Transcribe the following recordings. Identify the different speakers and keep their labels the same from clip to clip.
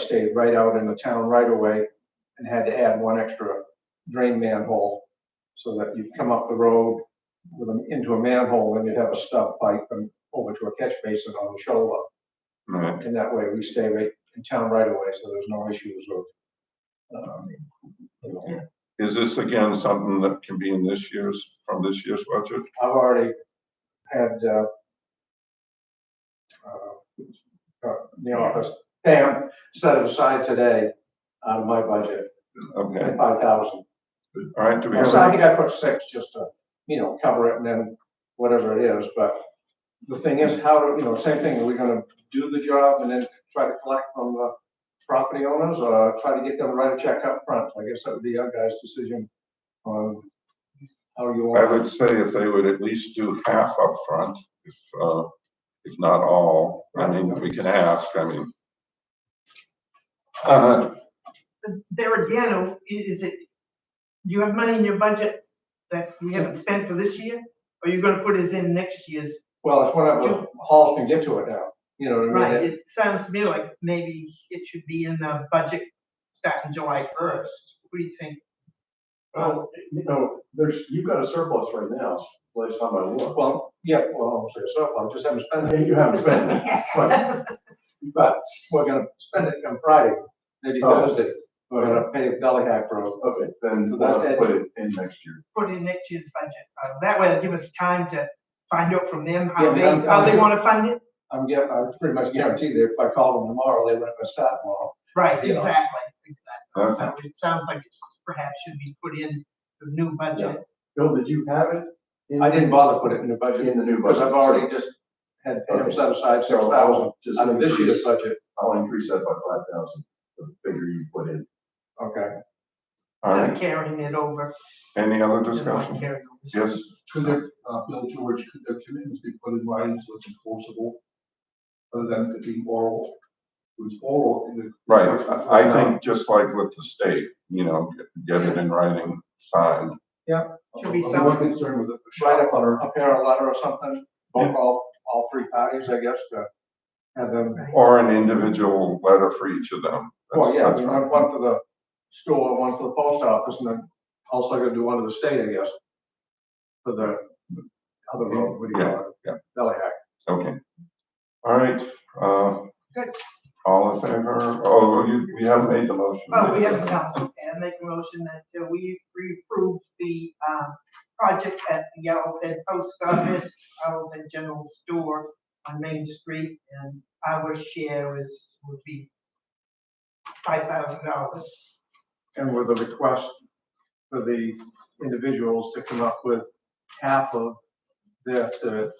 Speaker 1: stayed right out in the town right away and had to add one extra drain manhole so that you'd come up the road with a, into a manhole and you'd have a stub pipe and over to a catch basin on the shoulder.
Speaker 2: Right.
Speaker 1: And that way we stay right in town right away, so there's no issues with. um, you know,
Speaker 2: Is this again something that can be in this year's, from this year's budget?
Speaker 1: I've already had, uh, uh, uh, the office, Pam set it aside today out of my budget,
Speaker 2: Okay,
Speaker 1: five thousand.
Speaker 2: all right, do we have,
Speaker 1: So I
Speaker 2: any-
Speaker 1: think I put six just to, you know, cover it and then whatever it is, but the thing is, how, do you know, same thing, are we gonna do the job and then try to collect from the property owners or try to get them to write a check up front? I guess that would be your guys' decision on how you
Speaker 2: I
Speaker 1: want.
Speaker 2: would say if they would at least do half up front, if, uh, if not all, I mean, we can ask, I mean.
Speaker 1: Uh-huh.
Speaker 2: Uh,
Speaker 3: there again, oh, is it, you have money in your budget that we haven't spent for this year? Or you're gonna put it in next year's?
Speaker 1: Well, it's whatever Halls can get to it now, you know what I
Speaker 3: Right,
Speaker 1: mean?
Speaker 3: it sounds to me like maybe it should be in the budget starting July first. What do you think?
Speaker 4: Well, you know, there's, you've got a surplus right now, last time I looked.
Speaker 1: Well, yeah, well, I'm sorry, so I just haven't spent
Speaker 4: I
Speaker 1: it,
Speaker 4: mean, you haven't spent it. But
Speaker 1: but we're gonna spend it on Friday, maybe
Speaker 4: Oh.
Speaker 1: Thursday. We're gonna pay Belly Hack Road.
Speaker 4: Okay,
Speaker 1: So
Speaker 4: then
Speaker 1: that's
Speaker 4: we'll
Speaker 1: it.
Speaker 4: put it in next year.
Speaker 3: Put in next year's budget. Uh, That way it'll give us time to find out from them
Speaker 1: Yeah,
Speaker 3: how
Speaker 1: but
Speaker 3: they,
Speaker 1: I'm-
Speaker 3: how they wanna fund it.
Speaker 1: I'm get, I'm pretty much guaranteed that if I call them tomorrow, they wouldn't have started tomorrow.
Speaker 3: Right,
Speaker 1: You know.
Speaker 3: exactly, exactly.
Speaker 2: Okay.
Speaker 3: So it sounds like it perhaps should be put in the new budget.
Speaker 4: Bill, did you have it? in-
Speaker 1: I didn't bother putting it in the budget,
Speaker 4: In the new budget.
Speaker 1: because I've already just had him
Speaker 4: Okay.
Speaker 1: set aside six
Speaker 4: So
Speaker 1: thousand
Speaker 4: I'll just
Speaker 1: out of um, this year's
Speaker 4: increase,
Speaker 1: budget.
Speaker 4: I'll increase that by five thousand, the figure you put in.
Speaker 1: Okay.
Speaker 2: all
Speaker 3: Instead of
Speaker 2: right,
Speaker 3: carrying it over.
Speaker 2: any other
Speaker 3: you know, like
Speaker 2: discussion?
Speaker 3: carrying over.
Speaker 2: Yes,
Speaker 5: Could their, uh, Bill George, could their commitments be put in writing so it's enforceable? Other than it being oral, it was oral in the.
Speaker 2: right, I I think just like with the state, you know, get it in writing, signed.
Speaker 3: Should be
Speaker 5: I'm
Speaker 3: something.
Speaker 5: more concerned with a
Speaker 1: Write
Speaker 5: shot
Speaker 1: up a, a parent letter or something, phone call all three parties, I guess, to have them
Speaker 2: Or an individual letter for each of them. That's-
Speaker 1: Well, yeah, I
Speaker 2: that's
Speaker 1: mean,
Speaker 2: fine.
Speaker 1: one one for the store, one for the post office, and then also gonna do one to the state, I guess. For the other road, what do you call it?
Speaker 2: Yeah, yeah.
Speaker 1: Bellyhack.
Speaker 2: Okay. All right, uh.
Speaker 3: Good.
Speaker 2: All in favor? Oh, you, we haven't made the motion.
Speaker 3: Oh, we have, no, okay, I make a motion that uh, we we approve the, um, project at the Owl's Head Post Office, Owl's Head General Store on Main Street, and our share is, would be five thousand dollars.
Speaker 1: And with a request for the individuals to come up with half of their, their-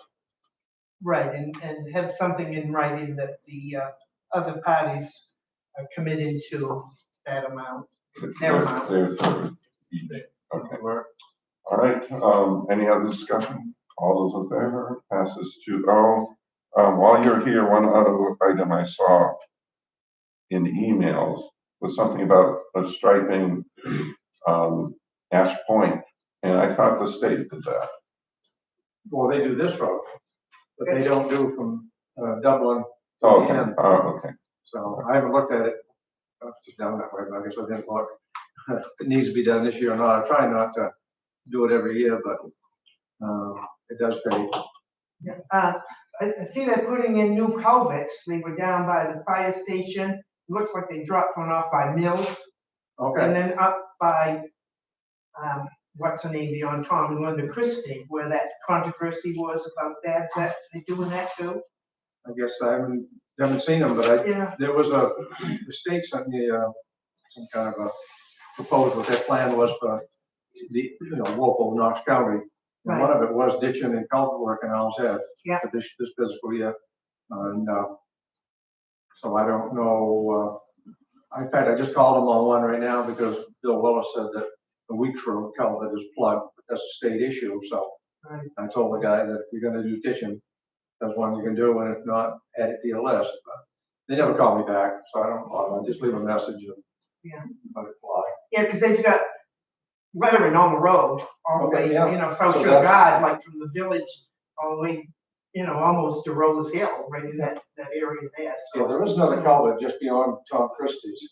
Speaker 3: Right, and, and have something in writing that the, uh, other parties are committed to that amount. Never mind.
Speaker 2: There's, there's, easy. okay.
Speaker 1: where-
Speaker 2: All right, um, any other discussion? All those in favor? Passes two oh. Um, while you're here, one other item I saw in the emails was something about a striping, um, Ash Point, and I thought the state did that.
Speaker 1: well, they do this road, but they don't do from uh, Dublin,
Speaker 2: Oh, Okay,
Speaker 1: Yeah.
Speaker 2: oh, okay.
Speaker 1: so I haven't looked at it. I was just down that way, but I guess I didn't look. If It needs to be done this year or not, I try not to do it every year, but, um, it does pay.
Speaker 3: Yeah, uh, I, I see they're putting in new culverts, they were down by the fire station, looks like they dropped one off by Mills,
Speaker 1: Okay,
Speaker 3: and then up by, um, what's her name, beyond Tom and Linda Christie, where that controversy was about that, is that, they doing that too?
Speaker 1: I guess I haven't, haven't seen them, but I,
Speaker 3: Yeah,
Speaker 1: there was a, the state sent me, uh, some kind of a proposal, what their plan was for the, you know, local Knox County. And one of it was ditching and culvert work in Al's Head.
Speaker 3: Yeah.
Speaker 1: for This, this fiscal year, and, uh, so I don't know, uh, in fact, I just called them on one right now because Bill Willis said that the Weeks Road culvert is plugged, but that's a state issue, so.
Speaker 3: Right.
Speaker 1: I told the guy that if you're gonna do ditching, that's one you can do, and if not, add it to your list, but they never call me back, so I don't, bother. I just leave a message and.
Speaker 3: Yeah.
Speaker 1: Let it fly.
Speaker 3: yeah, because they've got lettering on the road, all the way,
Speaker 1: Okay,
Speaker 3: you
Speaker 1: yeah.
Speaker 3: know, South
Speaker 1: So
Speaker 3: Shore
Speaker 1: that's-
Speaker 3: Guide, like from the village, all the way you know, almost to Rose Hill, right in that, that area there, so.
Speaker 1: Yeah, there is another culvert just beyond Tom Christie's.